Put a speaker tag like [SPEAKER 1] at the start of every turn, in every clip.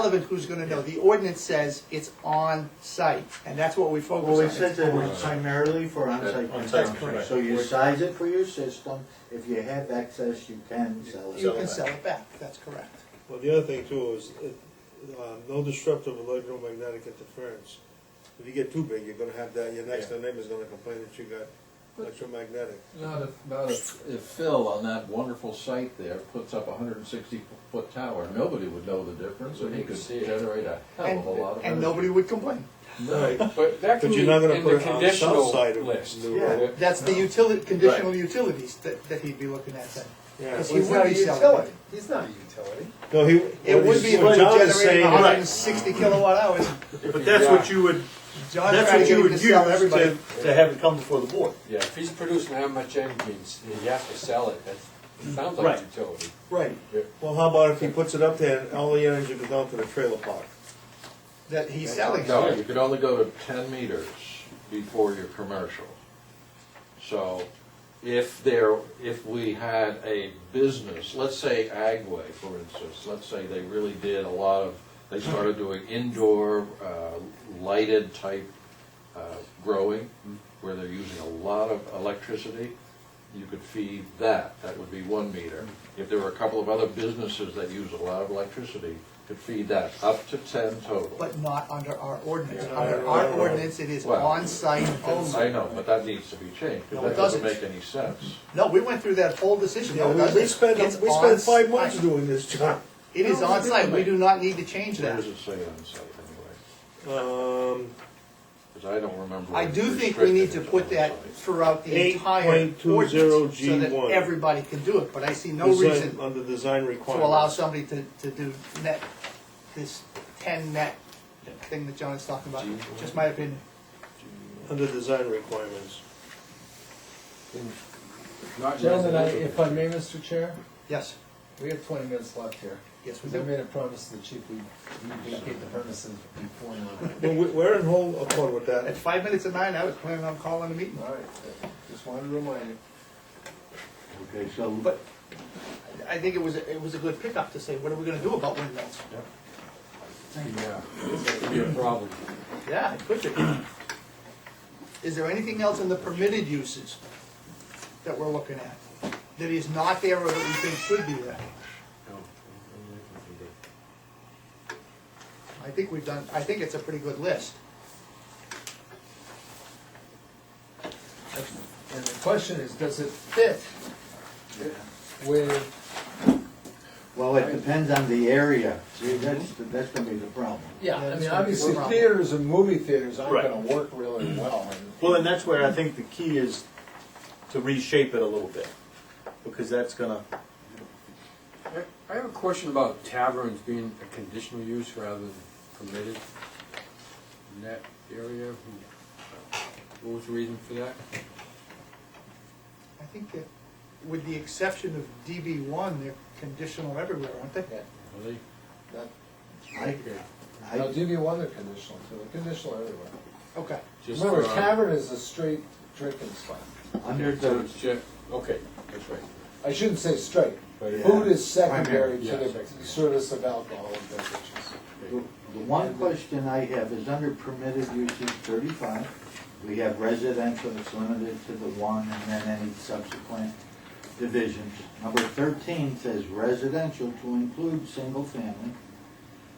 [SPEAKER 1] relevant who's gonna know. The ordinance says it's on site, and that's what we focus on.
[SPEAKER 2] Well, we said that it
[SPEAKER 1] It's
[SPEAKER 2] was primarily for onsite
[SPEAKER 3] On-site
[SPEAKER 2] consumption,
[SPEAKER 3] consumption.
[SPEAKER 2] so you size it for your system, if you have excess, you can sell
[SPEAKER 1] on-
[SPEAKER 2] it.
[SPEAKER 1] You can sell it back, that's correct.
[SPEAKER 4] Well, the other thing too is, uh, um, no disruptive electromagnetic interference. If you get too big, you're gonna have that, your next door neighbor's gonna complain that you got electromagnetic.
[SPEAKER 3] Not if, not if, if Phil on that wonderful site there puts up a hundred and sixty foot tower, nobody would know the difference, and he could generate Oh, a hell
[SPEAKER 1] And,
[SPEAKER 3] of a lot of.
[SPEAKER 1] and nobody would complain.
[SPEAKER 3] energy. No.
[SPEAKER 5] But that can
[SPEAKER 4] But
[SPEAKER 5] be
[SPEAKER 4] you're
[SPEAKER 5] in
[SPEAKER 4] not gonna put
[SPEAKER 5] the
[SPEAKER 4] it on the south
[SPEAKER 5] conditional
[SPEAKER 4] side of
[SPEAKER 5] list.
[SPEAKER 4] New
[SPEAKER 2] Yeah.
[SPEAKER 5] Right.
[SPEAKER 1] That's the utility, conditional utilities that, that he'd be looking at then.
[SPEAKER 4] Yeah.
[SPEAKER 1] He would be selling it.
[SPEAKER 6] He's not a utility.
[SPEAKER 4] No, he.
[SPEAKER 1] It would be if
[SPEAKER 4] what
[SPEAKER 1] we
[SPEAKER 4] John is
[SPEAKER 1] generated
[SPEAKER 4] saying is-
[SPEAKER 1] hundred and sixty kilowatt hours.
[SPEAKER 3] But
[SPEAKER 7] That's what you would,
[SPEAKER 1] John's
[SPEAKER 7] that's
[SPEAKER 1] trying
[SPEAKER 7] what
[SPEAKER 1] to get
[SPEAKER 7] you
[SPEAKER 1] him
[SPEAKER 7] would
[SPEAKER 1] to
[SPEAKER 7] use
[SPEAKER 1] sell
[SPEAKER 7] to,
[SPEAKER 1] everybody.
[SPEAKER 7] to have it come before the board.
[SPEAKER 5] Yeah, if he's producing how much engines, he has to sell it, that sounds like
[SPEAKER 7] Right.
[SPEAKER 5] utility.
[SPEAKER 1] Right,
[SPEAKER 4] Well, how about if he puts it up there and all the energy goes down to the trailer park?
[SPEAKER 1] that he's selling.
[SPEAKER 3] No, you could only go to ten meters before your commercial. So if there, if we had a business, let's say Agway, for instance, let's say they really did a lot of, they started doing indoor uh, lighted type uh, growing, where they're using a lot of electricity, you could feed that, that would be one meter. If there were a couple of other businesses that use a lot of electricity, could feed that, up to ten total.
[SPEAKER 1] But not under our ordinance.
[SPEAKER 4] Yeah.
[SPEAKER 1] Under our ordinance, it is
[SPEAKER 3] Well,
[SPEAKER 1] on-site
[SPEAKER 3] I
[SPEAKER 1] only.
[SPEAKER 3] know, but that needs to be changed,
[SPEAKER 1] No,
[SPEAKER 3] because
[SPEAKER 1] it
[SPEAKER 3] that doesn't
[SPEAKER 1] doesn't.
[SPEAKER 3] make any sense.
[SPEAKER 1] No, we went through that whole decision.
[SPEAKER 4] Yeah,
[SPEAKER 1] doesn't
[SPEAKER 4] we, we
[SPEAKER 1] it?
[SPEAKER 4] spent,
[SPEAKER 1] It's
[SPEAKER 4] we spent five
[SPEAKER 1] on-site.
[SPEAKER 4] months doing this, John.
[SPEAKER 1] It is on-site, we do not need to change
[SPEAKER 3] Where
[SPEAKER 1] that.
[SPEAKER 3] does it say on site anyway?
[SPEAKER 4] Um,
[SPEAKER 3] Because I don't remember.
[SPEAKER 1] I do think we need to
[SPEAKER 3] restricting
[SPEAKER 1] put
[SPEAKER 3] it
[SPEAKER 1] that
[SPEAKER 3] on site.
[SPEAKER 1] throughout the entire
[SPEAKER 4] 8.20
[SPEAKER 1] ordinance, so that
[SPEAKER 4] G1.
[SPEAKER 1] everybody can do it, but I see no
[SPEAKER 4] design,
[SPEAKER 1] reason
[SPEAKER 4] under design
[SPEAKER 1] to allow
[SPEAKER 4] requirements.
[SPEAKER 1] somebody to, to do net, this ten net thing that John is talking about,
[SPEAKER 3] G1.
[SPEAKER 1] just my opinion.
[SPEAKER 4] Under design requirements.
[SPEAKER 5] Not
[SPEAKER 6] Gentlemen, I-
[SPEAKER 5] residential.
[SPEAKER 6] if I may, Mr. Chair,
[SPEAKER 1] Yes,
[SPEAKER 6] we have twenty minutes left here.
[SPEAKER 1] yes, we
[SPEAKER 6] We
[SPEAKER 1] do.
[SPEAKER 6] made a promise to the chief, we we vacate the premises before nine.
[SPEAKER 4] Well, we- we're in whole accord with
[SPEAKER 1] At
[SPEAKER 4] that.
[SPEAKER 1] five minutes of nine, I was planning on calling a meeting.
[SPEAKER 6] All right, just wanted to remind you.
[SPEAKER 2] Okay, so
[SPEAKER 1] But I think it was, a- it was a good pickup to say, what are we gonna do about windmills?
[SPEAKER 5] Yeah, that could be a problem.
[SPEAKER 1] Yeah, it could be. Is there anything else in the permitted uses that we're looking at? That is not there or that we think should be there? I think we've done, I think it's a pretty good list.
[SPEAKER 6] And the question is, does it fit with,
[SPEAKER 2] Well, it depends on the area, see, that's, that's gonna be the problem.
[SPEAKER 6] yeah,
[SPEAKER 1] Yeah,
[SPEAKER 6] I
[SPEAKER 1] it's
[SPEAKER 6] mean,
[SPEAKER 1] gonna be a
[SPEAKER 6] obviously
[SPEAKER 1] problem.
[SPEAKER 6] theaters and movie theaters aren't
[SPEAKER 7] Right.
[SPEAKER 6] gonna work really well. and-
[SPEAKER 7] Well, and that's where I think the key is to reshape it a little bit, because that's gonna,
[SPEAKER 5] I- I have a question about taverns being a conditional use rather than permitted in that area. What was the reason for that?
[SPEAKER 1] I think that with the exception of DB one, they're conditional everywhere, aren't they?
[SPEAKER 6] Yeah,
[SPEAKER 5] Really?
[SPEAKER 6] that,
[SPEAKER 2] I,
[SPEAKER 6] I'll
[SPEAKER 2] I,
[SPEAKER 6] give you one, they're conditional too, they're conditional everywhere.
[SPEAKER 1] Okay.
[SPEAKER 5] Just
[SPEAKER 6] Remember,
[SPEAKER 5] for, uh,
[SPEAKER 6] tavern is a straight drinking spot.
[SPEAKER 2] under
[SPEAKER 5] so
[SPEAKER 2] the,
[SPEAKER 5] it's ju- Okay, that's right.
[SPEAKER 6] I shouldn't say straight.
[SPEAKER 5] But it-
[SPEAKER 6] Food is secondary to
[SPEAKER 5] Yeah,
[SPEAKER 6] the
[SPEAKER 5] secondary.
[SPEAKER 6] service of alcohol and beverages.
[SPEAKER 2] the the one question I have is under permitted uses thirty-five, we have residential, it's limited to the one, and then any subsequent divisions. Number thirteen says residential to include single family,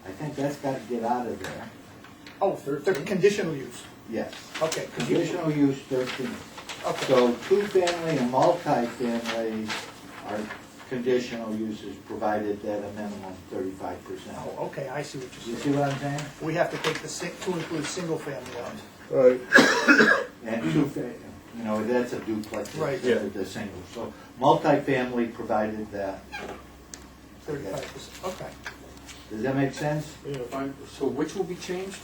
[SPEAKER 2] I think that's gotta get out of there,
[SPEAKER 1] Oh, they're conditional use,
[SPEAKER 2] yes.
[SPEAKER 1] okay.
[SPEAKER 2] Conditional use thirteen.
[SPEAKER 1] Okay,
[SPEAKER 2] So two-family and multifamily are conditional uses provided that a minimum thirty-five percent.
[SPEAKER 1] oh, okay, I see what
[SPEAKER 2] You
[SPEAKER 1] you're
[SPEAKER 2] see
[SPEAKER 1] saying.
[SPEAKER 2] what I'm saying?
[SPEAKER 1] We have to take the, sing- to include single family out.
[SPEAKER 4] Right.
[SPEAKER 2] And two, fa- you know, that's a duplex,
[SPEAKER 1] Right.
[SPEAKER 2] it's a the single. So multifamily provided that,
[SPEAKER 1] Thirty-five percent, okay.
[SPEAKER 2] does that make sense?
[SPEAKER 5] Fine. So which will be changed?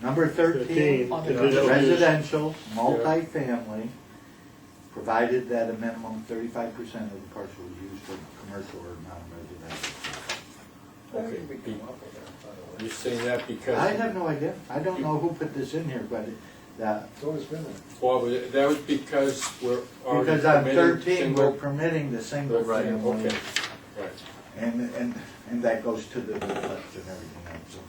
[SPEAKER 2] Number thirteen,
[SPEAKER 1] On the
[SPEAKER 4] conditional use.
[SPEAKER 2] residential, multifamily, provided that a minimum thirty-five percent of the parcel is used for commercial or non-residential.
[SPEAKER 6] I think we came up with that, by the way.
[SPEAKER 5] You're saying that because.
[SPEAKER 2] I have no idea. I don't know who put this in here, but it- that,
[SPEAKER 6] It's always been there.
[SPEAKER 5] Well, but that was because we're already
[SPEAKER 2] because on
[SPEAKER 5] permitting
[SPEAKER 2] thirteen, we're
[SPEAKER 5] single.
[SPEAKER 2] permitting the single
[SPEAKER 5] Right,
[SPEAKER 2] family.
[SPEAKER 5] okay. Right.
[SPEAKER 2] And, and, and that goes to the left and everything else.